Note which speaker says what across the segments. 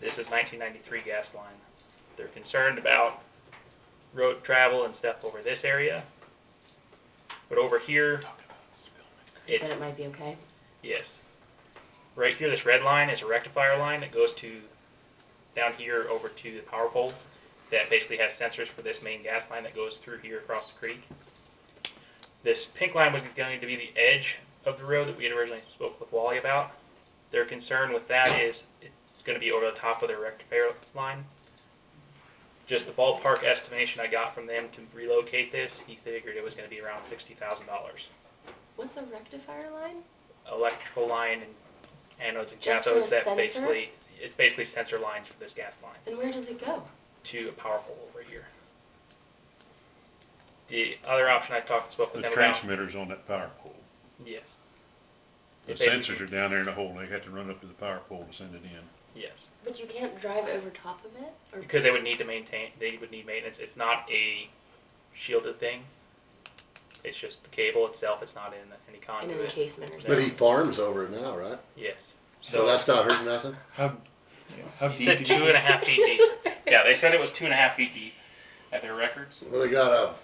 Speaker 1: versus 1993 gas line. They're concerned about road travel and stuff over this area. But over here,
Speaker 2: They
Speaker 1: it's
Speaker 2: said it might be okay.
Speaker 1: Yes. Right here, this red line is a rectifier line that goes to, down here over to the power pole that basically has sensors for this main gas line that goes through here across the creek. This pink line was going to be the edge of the road that we had originally spoke with Wally about. Their concern with that is it's gonna be over the top of their rectifier line. Just the ballpark estimation I got from them to relocate this, he figured it was gonna be around sixty thousand dollars
Speaker 2: What's a rectifier line?
Speaker 1: electrical line and anodes and
Speaker 2: Just for a
Speaker 1: cathodes that
Speaker 2: sensor?
Speaker 1: basically, it's basically sensor lines for this gas line
Speaker 2: And where does it go?
Speaker 1: to a power pole over here. The other option I talked, spoke with
Speaker 3: The
Speaker 1: them about.
Speaker 3: transmitter's on that power pole.
Speaker 1: Yes,
Speaker 3: The
Speaker 1: It basically-
Speaker 3: sensors are down there in the hole, they had to run up to the power pole to send it in.
Speaker 1: yes.
Speaker 2: But you can't drive over top of it? Or
Speaker 1: Because they would need to maintain, they would need maintenance. It's not a shielded thing. It's just the cable itself. It's not in any
Speaker 2: in an
Speaker 1: conduit.
Speaker 2: encasement or
Speaker 1: But
Speaker 4: But
Speaker 2: something?
Speaker 4: he farms over it now, right?
Speaker 1: Yes.
Speaker 4: So that's not hurting nothing?
Speaker 3: How, how
Speaker 1: He said
Speaker 3: deep is
Speaker 1: two
Speaker 3: it?
Speaker 1: and a half feet deep. Yeah, they said it was two and a half feet deep at their records.
Speaker 4: Well, they got a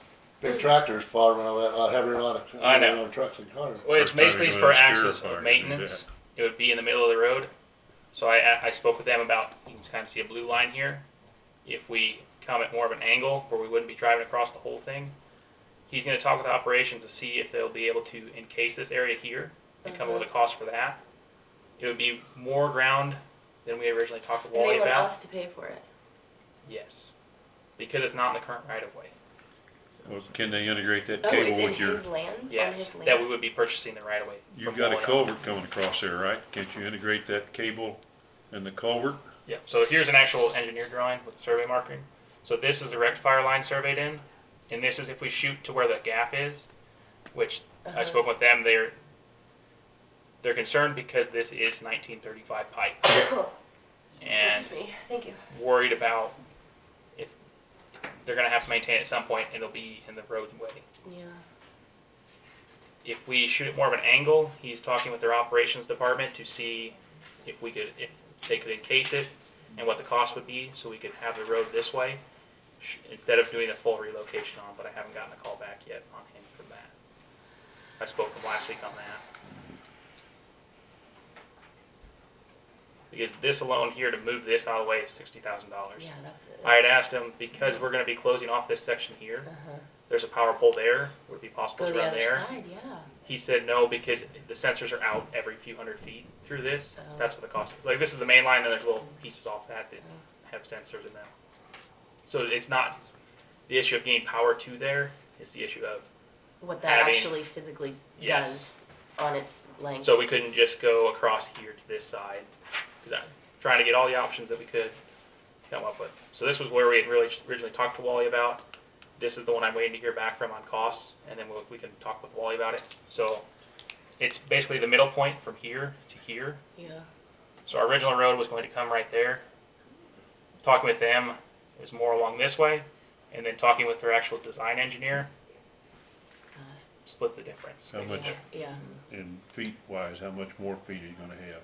Speaker 4: big tractors farming all that, not uh, having a lot of,
Speaker 1: I know.
Speaker 4: a lot of trucks and cars.
Speaker 1: Well, it's
Speaker 3: First time you're
Speaker 1: basically
Speaker 3: gonna
Speaker 1: for
Speaker 3: obscure
Speaker 1: access
Speaker 3: if I can
Speaker 1: of
Speaker 3: do
Speaker 1: maintenance. It would be in the middle of the road. So I, I spoke with them about, you can kind of see a blue line here. If we come at more of an angle where we wouldn't be driving across the whole thing, he's gonna talk with operations to see if they'll be able to encase this area here and come up
Speaker 2: Mm-hmm.
Speaker 1: with a cost for that. It would be more ground than we originally talked with
Speaker 2: And they
Speaker 1: Wally
Speaker 2: want
Speaker 1: about.
Speaker 2: us to pay for it.
Speaker 1: Yes. Because it's not in the current right of way.
Speaker 3: Well, Can they integrate that
Speaker 2: Oh, it's
Speaker 3: cable
Speaker 2: in
Speaker 3: with your,
Speaker 2: his land? On
Speaker 1: Yes,
Speaker 2: his land?
Speaker 1: that we would be purchasing the right of way.
Speaker 3: you've
Speaker 1: from
Speaker 3: got a
Speaker 1: Wally.
Speaker 3: culvert coming across there, right? Can't you integrate that cable and the culvert?
Speaker 1: Yeah, so here's an actual engineer drawing with survey marking. So this is the rectifier line surveyed in, and this is if we shoot to where the gap is, which I
Speaker 2: Uh-huh.
Speaker 1: spoke with them, they're, they're concerned because this is nineteen thirty-five pipe. And
Speaker 2: Oh, Excuse me, thank you.
Speaker 1: worried about if, they're gonna have to maintain it at some point, and it'll be in the roadway.
Speaker 2: Yeah.
Speaker 1: If we shoot it more of an angle, he's talking with their operations department to see if we could, if they could encase it and what the cost would be, so we could have the road this way, sh- instead of doing a full relocation on, but I haven't gotten a call back yet on him from that. I spoke with him last week on that. Because this alone here, to move this out of the way is sixty thousand dollars.
Speaker 2: Yeah, that's it.
Speaker 1: I had asked him, because we're gonna be closing off this section here,
Speaker 2: Uh-huh.
Speaker 1: there's a power pole there, would it be possible to
Speaker 2: Go the
Speaker 1: run
Speaker 2: other
Speaker 1: there?
Speaker 2: side, yeah.
Speaker 1: He said no because the sensors are out every few hundred feet through this.
Speaker 2: Oh.
Speaker 1: That's what the cost is. Like this is the main line, and there's little pieces off that that have sensors in them. So it's not the issue of getting power to there. It's the issue of
Speaker 2: What that
Speaker 1: Having-
Speaker 2: actually physically does
Speaker 1: Yes.
Speaker 2: on its length.
Speaker 1: so we couldn't just go across here to this side. 'Cause I'm trying to get all the options that we could come up with. So this was where we had really originally talked to Wally about. This is the one I'm waiting to hear back from on costs, and then we'll, we can talk with Wally about it. So it's basically the middle point from here to here.
Speaker 2: Yeah.
Speaker 1: So our original road was going to come right there. Talking with them, it was more along this way, and then talking with their actual design engineer, split the difference.
Speaker 3: How much?
Speaker 1: basically.
Speaker 2: Yeah.
Speaker 3: And feet wise, how much more feet are you gonna have?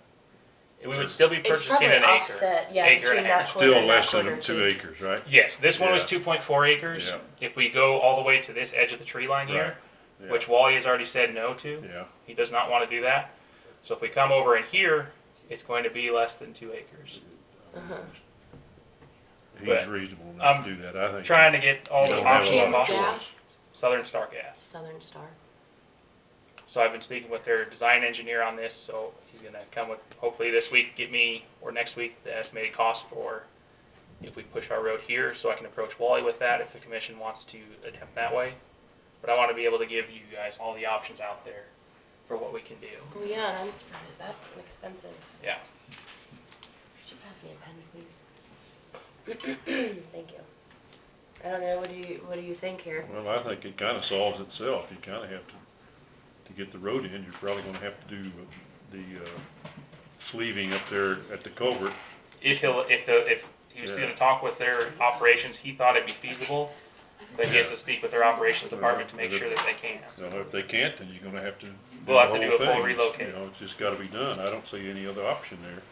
Speaker 1: We would still be
Speaker 2: It's
Speaker 1: purchasing
Speaker 2: probably
Speaker 1: an acre.
Speaker 2: offset, yeah,
Speaker 1: Acre and a
Speaker 2: between that
Speaker 1: half.
Speaker 2: corner
Speaker 3: Still
Speaker 2: and that
Speaker 3: less than
Speaker 2: corner
Speaker 3: two
Speaker 2: too.
Speaker 3: acres, right?
Speaker 1: Yes, this one was
Speaker 3: Yeah.
Speaker 1: two point four acres.
Speaker 3: Yeah.
Speaker 1: If we go all the way to this edge of the tree line here,
Speaker 3: Yeah.
Speaker 1: which Wally has already said no to.
Speaker 3: Yeah.
Speaker 1: He does not want to do that. So if we come over in here, it's going to be less than two acres.
Speaker 2: Uh-huh.
Speaker 3: He's
Speaker 1: but
Speaker 3: reasonable
Speaker 1: I'm
Speaker 3: enough to do that, I think.
Speaker 1: Trying to get all the
Speaker 3: Yeah.
Speaker 1: options
Speaker 3: Yeah.
Speaker 1: on possible.
Speaker 2: Gas,
Speaker 1: Southern Star Gas.
Speaker 2: Southern Star.
Speaker 1: So I've been speaking with their design engineer on this, so he's gonna come with, hopefully this week, get me, or next week, the estimated cost for if we push our road here, so I can approach Wally with that if the commission wants to attempt that way. But I wanna be able to give you guys all the options out there for what we can do.
Speaker 2: Oh yeah, and I'm surprised, that's expensive.
Speaker 1: Yeah.
Speaker 2: Could you pass me a pen, please? Thank you. I don't know, what do you, what do you think here?
Speaker 3: Well, I think it kinda solves itself, you kinda have to, to get the road in, you're probably gonna have to do the, uh, sleeving up there at the culvert.
Speaker 1: If he'll, if the, if he was
Speaker 3: Yeah.
Speaker 1: gonna talk with their operations, he thought it'd be feasible, but he has to speak with their operations department to make sure that they can.
Speaker 3: Now, if they can't, then you're gonna have to. do
Speaker 1: We'll have
Speaker 3: the
Speaker 1: to do
Speaker 3: whole
Speaker 1: a full
Speaker 3: thing.
Speaker 1: relocate.
Speaker 3: You know, it's just gotta be done, I don't see any other option there.